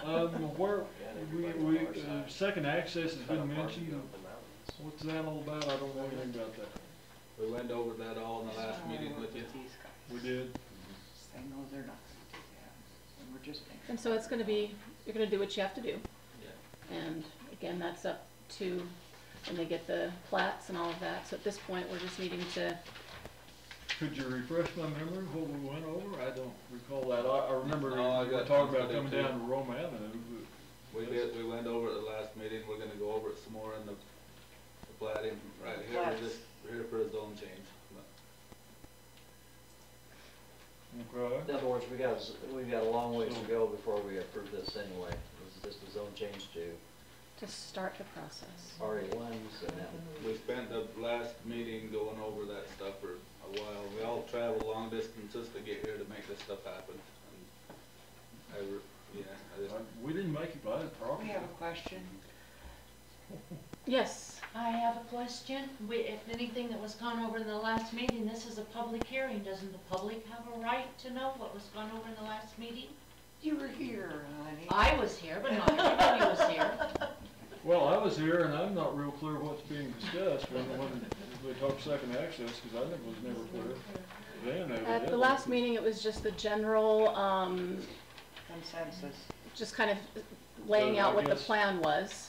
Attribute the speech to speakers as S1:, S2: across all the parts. S1: Um, where, we, we, uh, second access has been mentioned, uh, what's that all about, I don't know anything about that.
S2: We went over that all in the last meeting with you.
S1: We did,
S3: Say, no, they're not gonna do that, and we're just.
S4: And so it's gonna be, you're gonna do what you have to do.
S2: Yeah.
S4: And again, that's up to, when they get the plats and all of that, so at this point, we're just needing to,
S1: could you refresh my memory of what we went over, I don't recall that, I, I remember we
S2: No, I
S1: were
S2: got
S1: talking about
S2: something
S1: coming
S2: too.
S1: down to Rome Avenue,
S2: We did, we went over it the last meeting, we're gonna go over it some more in the, the plating, right here,
S3: Plats.
S2: we're just, we're here for a zone change.
S1: but, okay.
S5: In other words, we got, we got a long ways to go before we approve this anyway. This is just a zone change to
S4: to start the process.
S5: RA ones and then,
S2: We spent the last meeting going over that stuff for a while, we all traveled long distances to get here to make this stuff happen. and I, re- yeah, I just,
S1: Uh, We didn't make it by the
S3: We
S1: property.
S3: have a question.
S4: Yes,
S6: I have a question. We, if anything that was gone over in the last meeting, this is a public hearing. Doesn't the public have a right to know what was gone over in the last meeting?
S3: You were here, honey.
S6: I was here, but not everybody was here.
S1: Well, I was here and I'm not real clear what's being discussed when, when we talked second access, cause I think it was never clear. Then they
S4: at the last meeting, it was just the general, um,
S3: Consensus.
S4: just kind of laying out what the
S1: So I guess-
S4: plan was.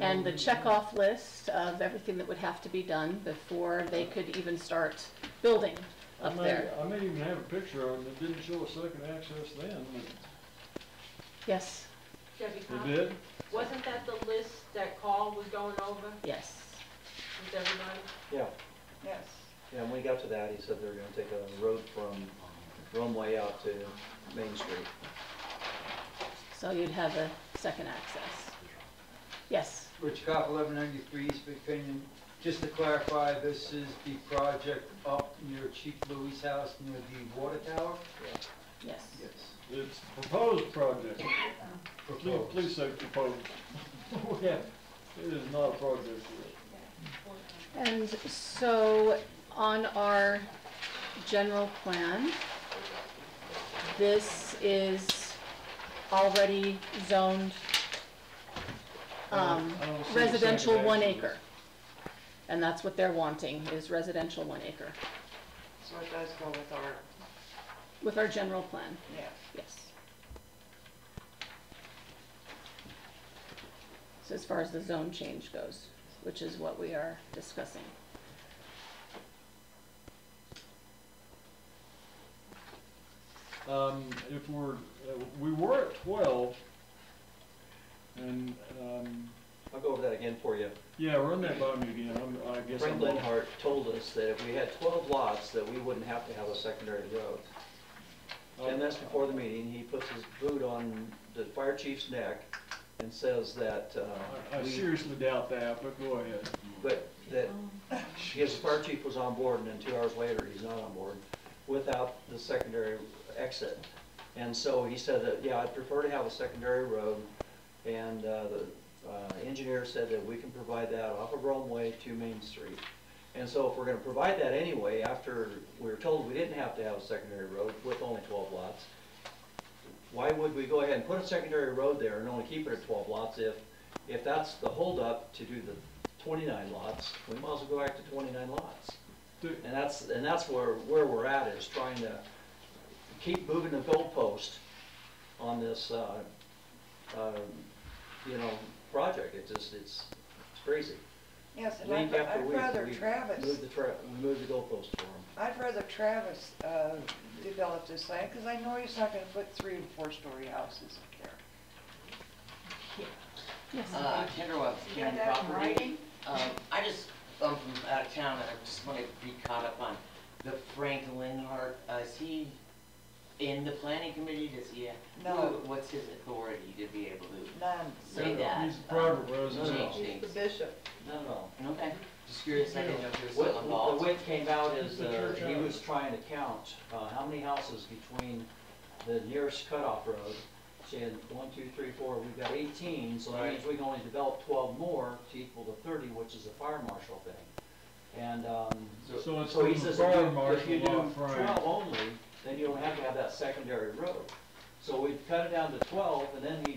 S4: And the checkoff list of everything that would have to be done before they could even start building
S1: I
S4: up
S1: may,
S4: there.
S1: I may even have a picture of it, it didn't show a second access then,
S4: Yes,
S7: Debbie
S1: but it
S7: Cox,
S1: did.
S7: wasn't that the list that Carl was going over
S4: yes.
S7: with everybody?
S5: yeah.
S3: Yes.
S5: Yeah, when we got to that, he said they were gonna take a road from Romeway out to Main Street.
S4: So you'd have a second access. Yes.
S8: Rich Cop, 1193 East Big Canyon. Just to clarify, this is the project up near Chief Louis' house, near the water tower?
S4: Yes.
S8: Yes.
S1: It's proposed project, please,
S8: Proposed.
S1: please say proposed. We have- It is not a project yet.
S4: And so on our general plan, this is already zoned um,
S1: I don't see the
S4: residential
S1: second
S4: one
S1: access.
S4: acre. And that's what they're wanting, is residential one acre
S3: So it does go with our,
S4: with our general plan,
S3: yes.
S4: yes. So as far as the zone change goes, which is what we are discussing.
S1: Um, if we're, uh, we were at twelve, and, um,
S5: I'll go over that again for you.
S1: yeah, run that by me again, I'm, I guess
S5: Frank
S1: I'm. off.
S5: Linhart told us that if we had twelve lots, that we wouldn't have to have a secondary road. Ten minutes before the meeting, he puts his boot on the fire chief's neck and says that,
S1: I-
S5: uh,
S1: I
S5: we,
S1: seriously doubt that, but go ahead.
S5: but
S6: Oh,
S5: that his fire chief was on board, and then two hours later, he's not on board, without the secondary exit. And so he said that, yeah, I'd prefer to have a secondary road, and uh, the uh, engineer said that we can provide that off of Romeway to Main Street. And so if we're gonna provide that anyway, after we were told we didn't have to have a secondary road with only twelve lots, why would we go ahead and put a secondary road there and only keep it at twelve lots if, if that's the holdup to do the twenty-nine lots, we might as well go back to twenty-nine lots.
S1: Do-
S5: And that's, and that's where, where we're at, is trying to keep moving the goalpost on this, uh, um, you know, project, it's just, it's it's crazy.
S3: Yes, and I'd
S5: Week after
S3: I'd
S5: week,
S3: rather
S5: we
S3: Travis,
S5: Move the tra, we move the goalpost for them.
S3: I'd rather Travis uh, develop this land, because I know he's not gonna put three and four-story houses up there.
S4: Yes.
S9: Uh, Kendra Webb, County Property. Um, I just, I'm from out of town, and I just wanna be caught up on the Frank Linhart, uh, is he in the planning committee, does he,
S3: No.
S9: who- what's his authority to be able to
S3: None.
S9: say that?
S1: He's a private
S9: Change
S1: resident.
S9: things,
S3: bishop.
S5: No, no.
S9: okay, just curious, I didn't know if he was
S5: What, what-
S9: still
S5: the
S9: involved.
S5: way it came out is,
S1: The
S5: uh,
S1: church
S5: he
S1: house.
S5: was trying to count, uh, how many houses between the nearest cutoff road. She had one, two, three, four, we've got eighteen, so that means we can only develop twelve more to equal to thirty, which is a fire marshal thing. And, um,
S1: So it's
S5: so
S1: from
S5: he
S1: the
S5: says,
S1: fire
S5: if
S1: marshal
S5: you- if you do
S1: lot, Frank.
S5: twelve only, then you don't have to have that secondary road. So we cut it down to twelve, and then he